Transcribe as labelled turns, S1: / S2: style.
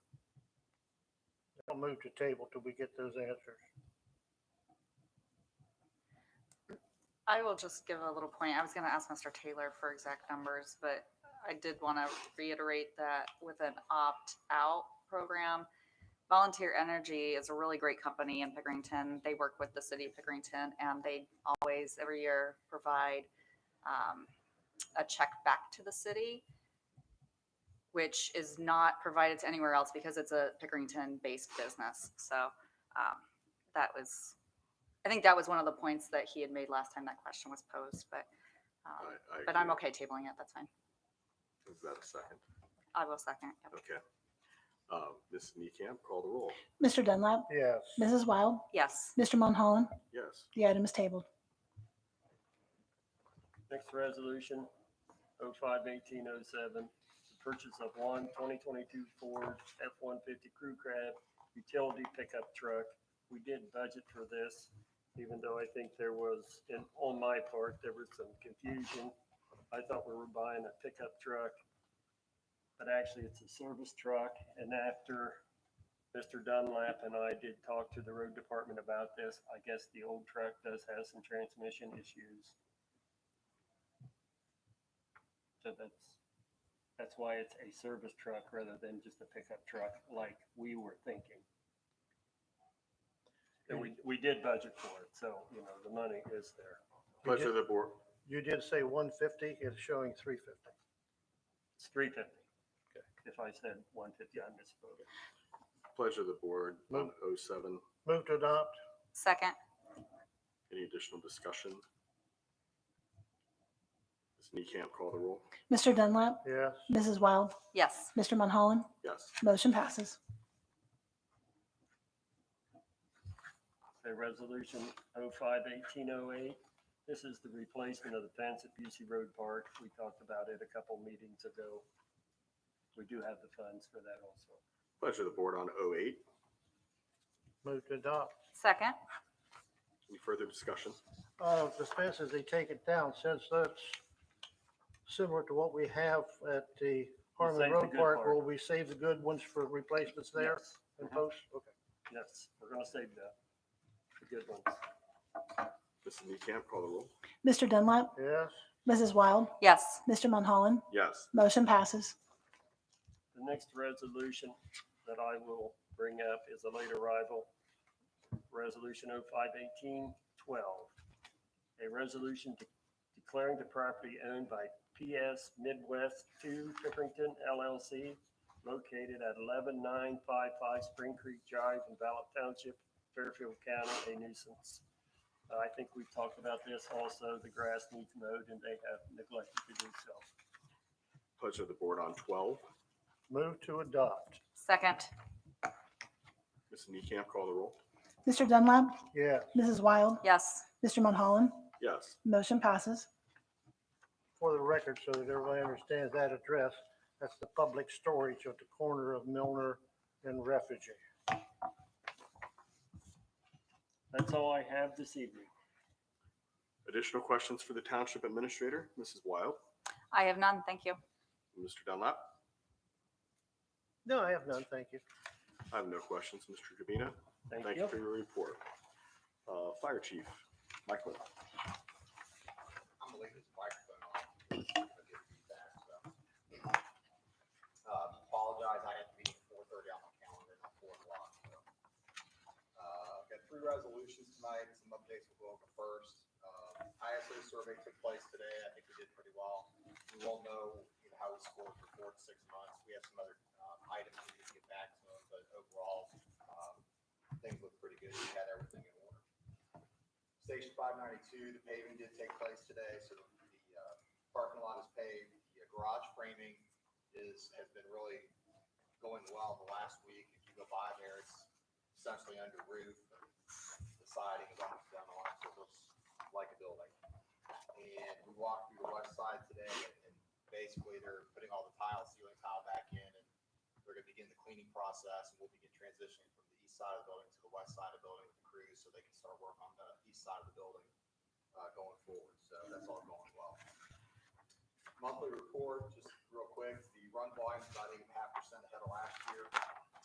S1: I'll move to table till we get those answers.
S2: I will just give a little point. I was going to ask Mr. Taylor for exact numbers, but I did want to reiterate that with an opt-out program, Volunteer Energy is a really great company in Pickerington. They work with the city of Pickerington and they always, every year, provide um, a check back to the city, which is not provided to anywhere else because it's a Pickerington-based business. So um, that was I think that was one of the points that he had made last time that question was posed, but, um,
S3: I- I
S2: but I'm okay
S3: agree.
S2: tabling it. That's fine.
S3: Is that a second?
S2: I will second. Yep.
S3: Okay. Um, Ms. Niekamp, call the roll.
S4: Mr. Dunlap,
S1: Yes.
S4: Mrs. Wild,
S2: Yes,
S4: Mr. Monholland,
S3: Yes.
S4: the item is tabled.
S5: Next resolution, oh five eighteen oh seven, the purchase of one 2022 Ford F one fifty Crew Cab utility pickup truck. We did budget for this, even though I think there was, and on my part, there was some confusion. I thought we were buying a pickup truck, but actually it's a service truck. And after Mr. Dunlap and I did talk to the road department about this, I guess the old truck does have some transmission issues. So that's, that's why it's a service truck rather than just a pickup truck like we were thinking. And we, we did budget for it, so, you know, the money is there.
S3: Pleasure of the board.
S1: You did say one fifty, it's showing three fifty.
S5: It's three fifty. If I said one fifty, I misspoke.
S3: Pleasure of the board on
S1: Move.
S3: 07.
S1: Move to adopt?
S2: second.
S3: Any additional discussion? Ms. Niekamp, call the roll.
S4: Mr. Dunlap,
S1: Yes.
S4: Mrs. Wild,
S2: Yes,
S4: Mr. Monholland,
S3: Yes.
S4: motion passes.
S5: Okay, resolution 05-1808. This is the replacement of the fence at Busey Road Park. We talked about it a couple meetings ago. We do have the funds for that also.
S3: Pleasure of the board on 08.
S1: Move to adopt.
S2: second.
S3: Any further discussion?
S1: Uh, the fences, they take it down since that's similar to what we have at the Harmon
S5: save the
S1: Road
S5: good
S1: Park.
S5: part.
S1: Will we save the good ones for replacements there
S5: Yes.
S1: and
S5: Mhm.
S1: posts? Okay.
S5: Yes, we're gonna save the, the good ones.
S3: Ms. Niekamp, call the roll.
S4: Mr. Dunlap,
S1: Yes.
S4: Mrs. Wild,
S2: Yes,
S4: Mr. Monholland,
S3: Yes.
S4: motion passes.
S5: The next resolution that I will bring up is a late arrival, Resolution 051812. A resolution de- declaring the property owned by PS Midwest 2 Pickerington LLC located at 11955 Spring Creek Drive in Ballot Township, Fairfield County, a nuisance. Uh, I think we've talked about this also. The grass needs mowed and they have neglected to do so.
S3: Pleasure of the board on 12.
S1: Move to adopt?
S2: second.
S3: Ms. Niekamp, call the roll.
S4: Mr. Dunlap,
S1: Yes.
S4: Mrs. Wild,
S2: Yes,
S4: Mr. Monholland,
S3: Yes.
S4: motion passes.
S1: For the record, so that everybody understands that address, that's the public storage at the corner of Milner and Refugee.
S5: That's all I have this evening.
S3: Additional questions for the township administrator, Mrs. Wild,
S2: I have none. Thank you.
S3: Mr. Dunlap?
S1: No, I have none, thank you.
S3: I have no questions. Mr. Gabina?
S5: Thank
S3: Thank
S5: you.
S3: you for your report. Uh, Fire Chief Michael.
S6: I'm gonna leave his microphone on. because I get feedback, so. Uh, apologize, I had to be at four thirty on my calendar, not four o'clock, so. Uh, got three resolutions tonight, some updates with Wilka first. Uh, ISO survey took place today, I think we did pretty well. We won't know, you know, how we scored for four to six months, we have some other, um, items we need to get back to, but overall, um, things look pretty good, we had everything in order. Station five ninety-two, the paving did take place today, so the, the, uh, parking lot is paved. The garage framing is, has been really going well the last week. If you go by there, it's essentially under roof. The siding is almost done on, it, so it looks like a building. And we walked through the west side today and basically they're putting all the tile, ceiling tile back in and they're gonna begin the cleaning process and we'll begin transitioning from the east side of the building to the west side of the building with the crews so they can start work on the east side of the building, uh, going forward. So that's all going well. Monthly report, just real quick, the run volume's about eight